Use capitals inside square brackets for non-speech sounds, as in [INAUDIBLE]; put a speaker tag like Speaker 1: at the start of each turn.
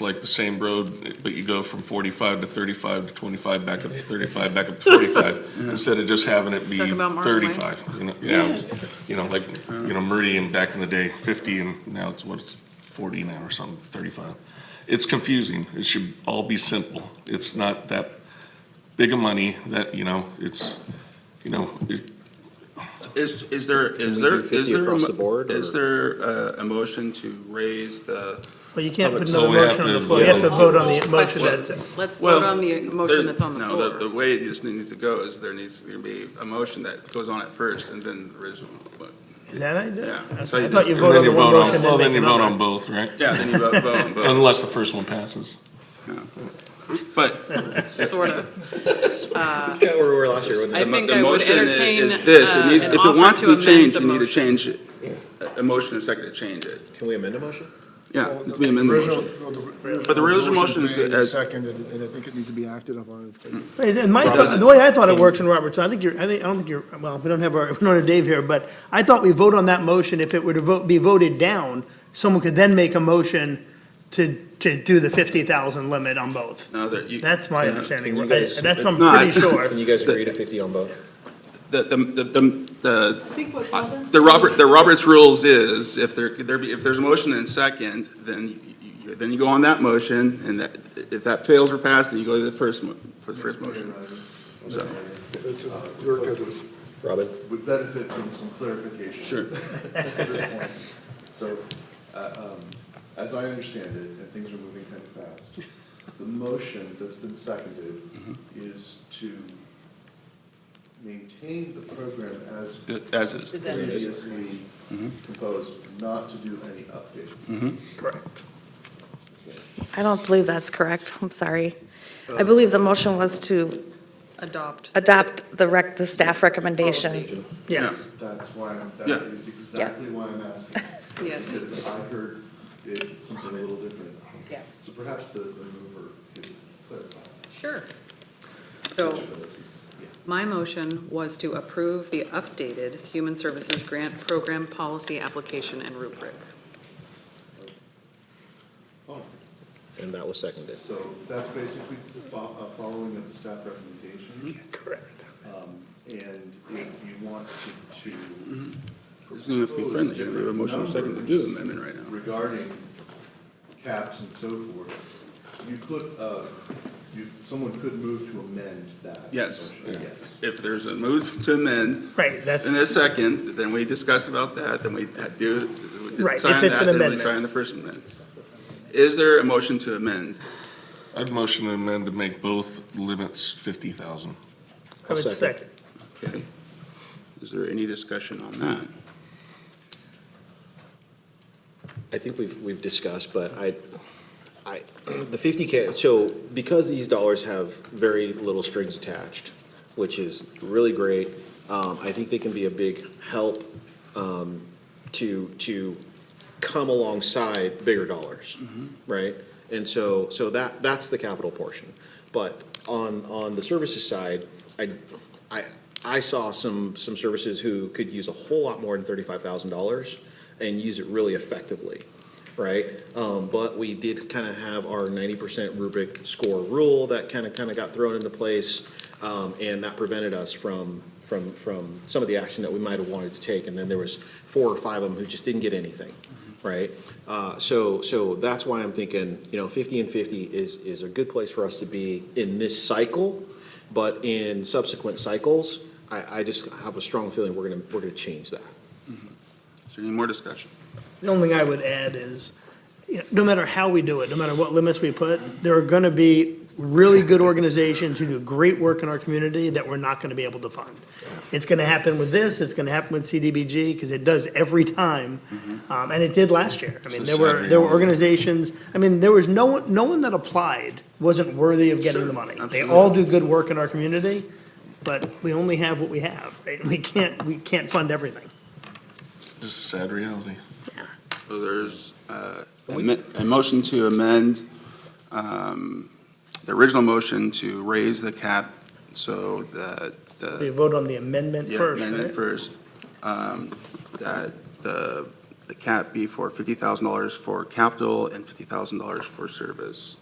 Speaker 1: like the same road, but you go from forty-five to thirty-five to twenty-five, back up to thirty-five, back up to forty-five, instead of just having it be
Speaker 2: Talking about Mark's Way.
Speaker 1: thirty-five, you know, yeah, you know, like, you know, Meridian back in the day, fifty, and now it's what, it's forty now or something, thirty-five. It's confusing, it should all be simple, it's not that big of money, that, you know, it's, you know, it,
Speaker 3: Is, is there, is
Speaker 4: we
Speaker 3: there,
Speaker 4: do 50
Speaker 3: is there? a
Speaker 4: across
Speaker 3: mo-
Speaker 4: the board,
Speaker 3: Is
Speaker 4: or-
Speaker 3: there uh, a motion to raise the?
Speaker 5: Well, you can't put
Speaker 3: Public-
Speaker 5: another
Speaker 1: So we have
Speaker 5: motion on the
Speaker 1: to
Speaker 5: floor. You have to
Speaker 1: vote.
Speaker 5: vote on the
Speaker 2: Question.
Speaker 5: motion that's, it.
Speaker 2: Let's
Speaker 3: Well,
Speaker 2: vote on the
Speaker 3: there-
Speaker 2: motion that's on the
Speaker 3: No, the, the
Speaker 2: floor.
Speaker 3: way this needs to go is there needs to be a motion that goes on at first and then the original. but-
Speaker 5: is that right?
Speaker 3: Yeah,
Speaker 5: I
Speaker 3: so you
Speaker 5: thought you
Speaker 3: do- Vote
Speaker 5: voted
Speaker 1: then
Speaker 5: on the
Speaker 1: you
Speaker 5: one
Speaker 1: vote on,
Speaker 5: motion,
Speaker 1: well, then
Speaker 5: then make
Speaker 1: you vote
Speaker 5: another.
Speaker 1: on both, right?
Speaker 3: Yeah, then you vote, vote, vote.
Speaker 1: Unless the first one passes.
Speaker 3: But
Speaker 2: Sort of.
Speaker 4: That's kind of where we were last year, wasn't
Speaker 2: I
Speaker 3: the mo-
Speaker 2: think
Speaker 3: the
Speaker 2: I would
Speaker 3: motion is
Speaker 2: entertain,
Speaker 3: is this, it
Speaker 2: uh,
Speaker 3: needs,
Speaker 2: an
Speaker 3: if it
Speaker 2: offer
Speaker 3: wants
Speaker 2: to
Speaker 3: to be
Speaker 2: amend
Speaker 3: changed,
Speaker 2: the
Speaker 3: you need to
Speaker 2: motion.
Speaker 3: change it. A a motion and a second to change it.
Speaker 4: it? Can we amend a motion?
Speaker 3: Yeah,
Speaker 6: Well,
Speaker 3: it's being amended.
Speaker 6: original- well,
Speaker 3: But the original motion is
Speaker 6: made and
Speaker 3: as-
Speaker 6: Seconded, and I think it needs to be acted upon.
Speaker 5: Hey, then my,
Speaker 3: Doesn't-
Speaker 5: the way I thought it works in Roberts, I think you're, I think, I don't think you're, well, we don't have our, [LAUGHS] we don't have Dave here, but I thought we vote on that motion, if it were to vote, be voted down, someone could then make a motion to, to do the fifty thousand limit on both.
Speaker 3: No, that you.
Speaker 5: That's my
Speaker 3: yeah.
Speaker 5: understanding,
Speaker 4: Can you
Speaker 5: right?
Speaker 4: guys-
Speaker 5: That's, I'm
Speaker 3: It's not.
Speaker 5: pretty
Speaker 1: [LAUGHS]
Speaker 5: sure.
Speaker 4: Can you guys agree to fifty on both?
Speaker 3: The, the, the, the, the- the Robert, the Robert's rules is, if there, there be, if there's a motion and second, then you, then you go on that motion, and that, if that fails or passed, then you go to the first mo, for the first motion. So,
Speaker 4: Robin?
Speaker 7: would benefit from some clarification.
Speaker 3: Sure.
Speaker 7: [LAUGHS] At this point. So, uh, um, as I understand it, and things are moving kind of fast, the motion that's been seconded
Speaker 3: Mm-hmm.
Speaker 7: is to maintain the program as
Speaker 3: as is.
Speaker 7: previously
Speaker 3: Mm-hmm.
Speaker 7: proposed, not to do any updates.
Speaker 5: Correct.
Speaker 8: I don't believe that's correct. I'm sorry. I believe the motion was to
Speaker 2: Adopt.
Speaker 8: adopt the rec, the staff recommendation.
Speaker 5: Yes.
Speaker 7: That's why, I'm-
Speaker 3: Yeah.
Speaker 7: that is exactly why I'm asking.
Speaker 2: Yes.
Speaker 7: Because I heard it, something a little different.
Speaker 8: Yeah.
Speaker 7: So perhaps the, the mover could clarify.
Speaker 2: Sure. So
Speaker 7: Sure, this is- yeah.
Speaker 2: my motion was to approve the updated Human Services Grant Program Policy Application and Rubric.
Speaker 4: And that was seconded.
Speaker 7: Oh, So that's basically fo- uh, following of the staff recommendation.
Speaker 5: Correct.
Speaker 7: Um, And if you want to- to
Speaker 3: It's gonna have to be friendly, you have a motion and second to do the amendment right now.
Speaker 7: regarding caps and so forth, you could, uh, you, someone could move to amend that.
Speaker 3: Yes.
Speaker 7: motion, Yes.
Speaker 3: If there's a move to amend,
Speaker 5: Right, that's,
Speaker 3: and a second, then we discuss about that, then we do,
Speaker 5: Right, if
Speaker 3: sign
Speaker 5: it's
Speaker 3: that, then
Speaker 5: an
Speaker 3: we
Speaker 5: amendment.
Speaker 3: sign the first amendment. Is there a motion to amend?
Speaker 1: I'd motion to amend to make both limits fifty thousand.
Speaker 5: I would
Speaker 4: I'll second.
Speaker 5: second.
Speaker 3: Okay. Is there any discussion on that?
Speaker 4: I think we've, we've discussed, but I, I, [CLEARS THROAT] the fifty K, so because these dollars have very little strings attached, which is really great, um, I think they can be a big help, um, to, to come alongside bigger dollars, right? And so, so that, that's the capital portion. But on, on the services side, I, I, I saw some, some services who could use a whole lot more than thirty-five thousand dollars and use it really effectively, right? Um, but we did kind of have our ninety percent rubric score rule that kind of, kind of got thrown into place. Um, and that prevented us from, from, from some of the action that we might have wanted to take. And then there was four or five of them who just didn't get anything, right? Uh, so, so that's why I'm thinking, you know, fifty and fifty is, is a good place for us to be in this cycle. But in subsequent cycles, I, I just have a strong feeling we're gonna, we're gonna change that.
Speaker 3: Is there any more discussion?
Speaker 5: The only thing I would add is, you know, no matter how we do it, no matter what limits we put, there are going to be really good organizations who do great work in our community that we're not going to be able to fund. It's going to happen with this, it's going to happen with CDBG, because it does every time. Um, And it did last year. I
Speaker 1: Mm-hmm.
Speaker 5: mean,
Speaker 1: It's
Speaker 5: there
Speaker 1: a sad
Speaker 5: were, there were
Speaker 1: reality.
Speaker 5: organizations, I mean, there was no one, no one that applied wasn't worthy of getting the money. They all do good work in our community, but we only have what we have, right? We can't, we can't fund everything.
Speaker 1: Just a sad reality.
Speaker 3: So there's uh, amen- a motion to amend um, the original motion to raise the cap so that
Speaker 5: We
Speaker 3: the
Speaker 1: Uh,
Speaker 5: vote on the amendment
Speaker 3: yeah,
Speaker 5: first, right?
Speaker 3: amendment first, um, that the the cap be for fifty thousand dollars for capital and fifty thousand dollars for service.